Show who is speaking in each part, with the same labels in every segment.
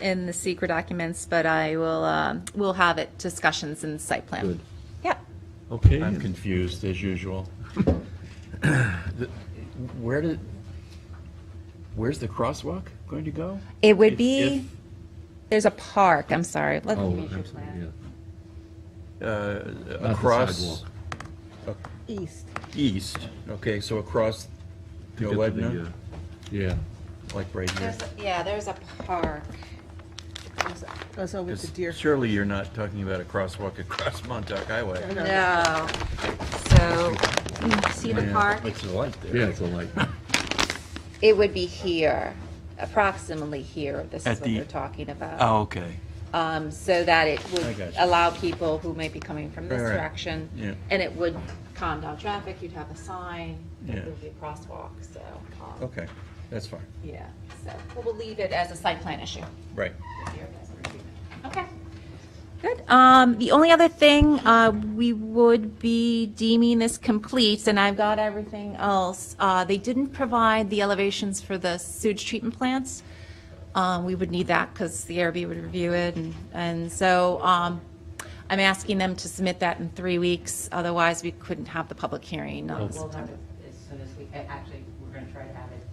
Speaker 1: in the secret documents, but I will, um, we'll have it discussions in site plan.
Speaker 2: Good.
Speaker 1: Yeah.
Speaker 2: Okay.
Speaker 3: I'm confused as usual. The- Where did, where's the crosswalk going to go?
Speaker 1: It would
Speaker 3: If-
Speaker 1: be, there's a park, I'm sorry. Let-
Speaker 2: Oh, I'm sorry, yeah.
Speaker 3: if, uh,
Speaker 2: Not the
Speaker 3: Across
Speaker 2: sidewalk.
Speaker 4: Oh. East.
Speaker 3: east, okay, so across
Speaker 2: To get to the,
Speaker 3: Noedna,
Speaker 2: uh, Yeah,
Speaker 3: like right here.
Speaker 1: There's a- Yeah, there's a park.
Speaker 4: Goes- Goes over to Deer.
Speaker 3: Surely you're not talking about a crosswalk across Montauk Highway.
Speaker 1: No. So,
Speaker 4: You see the
Speaker 3: Yeah,
Speaker 4: park?
Speaker 3: It's a light there.
Speaker 2: yeah, it's a light.
Speaker 1: it would be here, approximately here, this
Speaker 3: At
Speaker 1: is what
Speaker 3: the-
Speaker 1: they're talking about.
Speaker 3: Oh, okay.
Speaker 1: Um, so that it
Speaker 3: I
Speaker 1: would
Speaker 3: gotcha.
Speaker 1: allow people who may be coming from this
Speaker 3: Right, right.
Speaker 1: direction.
Speaker 3: Yeah.
Speaker 1: And it would calm down traffic, you'd have a sign,
Speaker 3: Yeah.
Speaker 1: there would be a crosswalk, so, um,
Speaker 3: Okay, that's fine,
Speaker 1: yeah. So we'll- we'll leave it as a site plan issue.
Speaker 3: right.
Speaker 1: Okay. Good. Um, the only other thing, uh, we would be deeming this complete, and I've got everything else. Uh, they didn't provide the elevations for the sewage treatment plants. Um, we would need that because the ARB would review it, and, and so, um, I'm asking them to submit that in three weeks, otherwise we couldn't have the public hearing on
Speaker 5: We'll have
Speaker 1: September.
Speaker 5: it as soon as we, a- actually, we're gonna try to have it,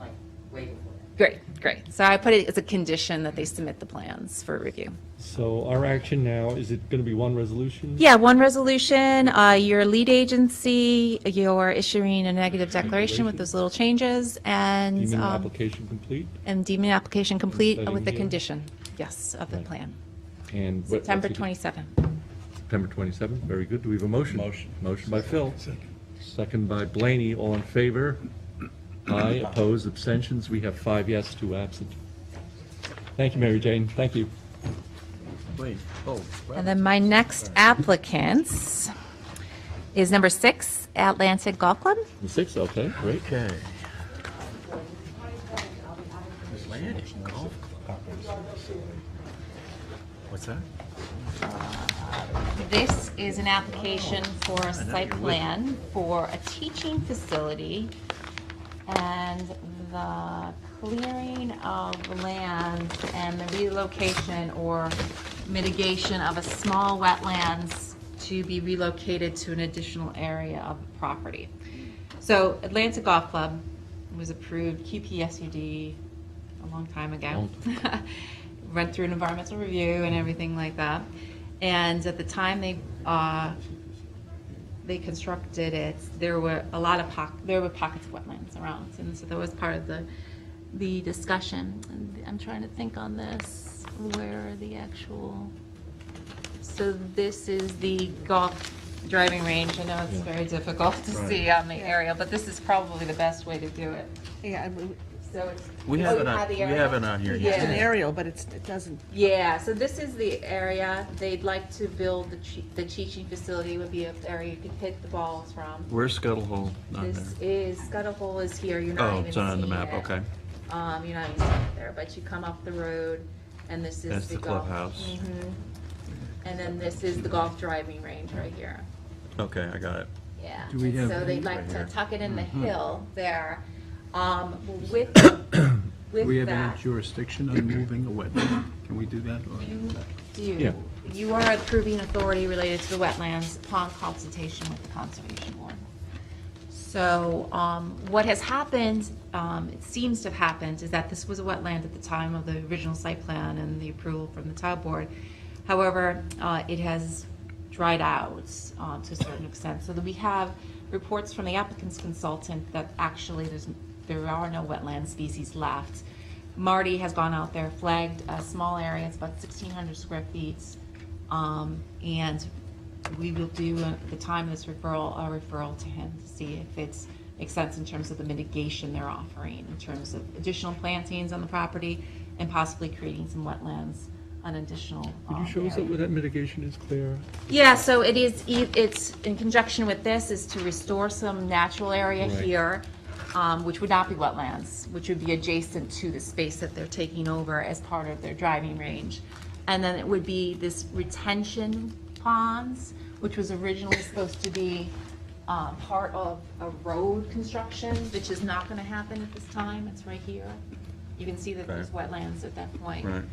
Speaker 5: like, way before that.
Speaker 1: Great, great. So I put it as a condition that they submit the plans for review.
Speaker 6: So our action now, is it going to be one resolution?
Speaker 1: Yeah, one resolution, uh, your lead agency, you're issuing a negative declaration with those little changes
Speaker 6: Do you
Speaker 1: and,
Speaker 6: mean the
Speaker 1: um,
Speaker 6: application complete?
Speaker 1: and deeming application complete
Speaker 6: Setting
Speaker 1: with the
Speaker 6: here.
Speaker 1: condition, yes, of the
Speaker 6: Right.
Speaker 1: plan.
Speaker 6: And what- what's
Speaker 1: September
Speaker 6: the-
Speaker 1: 27.
Speaker 2: September 27th, very good. Do we have a motion?
Speaker 3: Motion.
Speaker 2: Motion by Phil. Second. Second by Blaney, all in favor? Aye, opposed, abstentions, we have five yes, two absent.
Speaker 6: Thank you, Mary Jane. Thank you.
Speaker 3: Wait, oh. wow.
Speaker 1: And then my next applicants is number six, Atlantic Golf Club.
Speaker 6: The Six, okay, great.
Speaker 3: Okay. Atlantic Golf Club. What's that?
Speaker 1: This is an application for a site plan for a teaching facility and the clearing of land and the relocation or mitigation of a small wetlands to be relocated to an additional area of the property. So Atlanta Golf Club was approved QPSUD a long time ago. Went through an environmental review and everything like that. And at the time they, uh, they constructed it, there were a lot of pock, there were pockets of wetlands around. And so that was part of the, the discussion. And I'm trying to think on this, where are the actual? So this is the golf driving range. I know it's very difficult to see on the aerial, but this is probably the best way to do it.
Speaker 4: Yeah, I mean,
Speaker 1: So it's.
Speaker 3: We
Speaker 1: Oh,
Speaker 3: have
Speaker 1: you
Speaker 3: it on,
Speaker 1: the
Speaker 3: we
Speaker 1: area?
Speaker 3: have it on here.
Speaker 4: it's an
Speaker 1: Yeah.
Speaker 4: aerial, but it's, it doesn't,
Speaker 1: Yeah, so this is the area, they'd like to build the, chi- the teaching facility would be an area you could hit the balls from.
Speaker 3: Where's Scuttle Hole on there?
Speaker 1: This is, Scuttle Hole is here, you're not
Speaker 3: Oh,
Speaker 1: even
Speaker 3: it's not on the
Speaker 1: seeing
Speaker 3: map,
Speaker 1: it.
Speaker 3: okay.
Speaker 1: Um, you're not even seeing it there, but you come up the road and this is
Speaker 3: That's
Speaker 1: the
Speaker 3: the
Speaker 1: golf.
Speaker 3: clubhouse.
Speaker 1: Mhm. And then this is the golf driving range right here.
Speaker 3: Okay, I got it.
Speaker 1: Yeah,
Speaker 2: Do we
Speaker 1: and
Speaker 2: have
Speaker 1: so they'd
Speaker 2: any- Mm-hmm.
Speaker 1: like
Speaker 2: right
Speaker 1: to
Speaker 2: here.
Speaker 1: tuck it in the hill there. Um, with, with that,
Speaker 7: jurisdiction on moving a wetland? Can we do that?
Speaker 1: you do,
Speaker 2: Yeah.
Speaker 1: you are approving authority related to the wetlands upon consultation with the Conservation Board. So, um, what has happened, um, it seems to have happened, is that this was a wetland at the time of the original site plan and the approval from the tile board. However, uh, it has dried out, um, to a certain extent, so that we have reports from the applicant's consultant that actually there's, there are no wetland species left. Marty has gone out there, flagged a small area, it's about sixteen hundred square feet, um, and we will do, uh, at the time of this referral, a referral to him to see if it's, makes sense in terms of the mitigation they're offering, in terms of additional plantings on the property and possibly creating some wetlands on additional.
Speaker 6: Could you
Speaker 1: um,
Speaker 6: show us that
Speaker 1: area.
Speaker 6: where that mitigation is, Claire?
Speaker 1: Yeah, so it is, e- it's, in conjunction with this, is to restore some natural area
Speaker 6: Right.
Speaker 1: here, um, which would not be wetlands, which would be adjacent to the space that they're taking over as part of their driving range. And then it would be this retention ponds, which was originally supposed to be uh, part of a road construction, which is not going to happen at this time, it's right here. You can see that there's wetlands at that point.
Speaker 3: Right.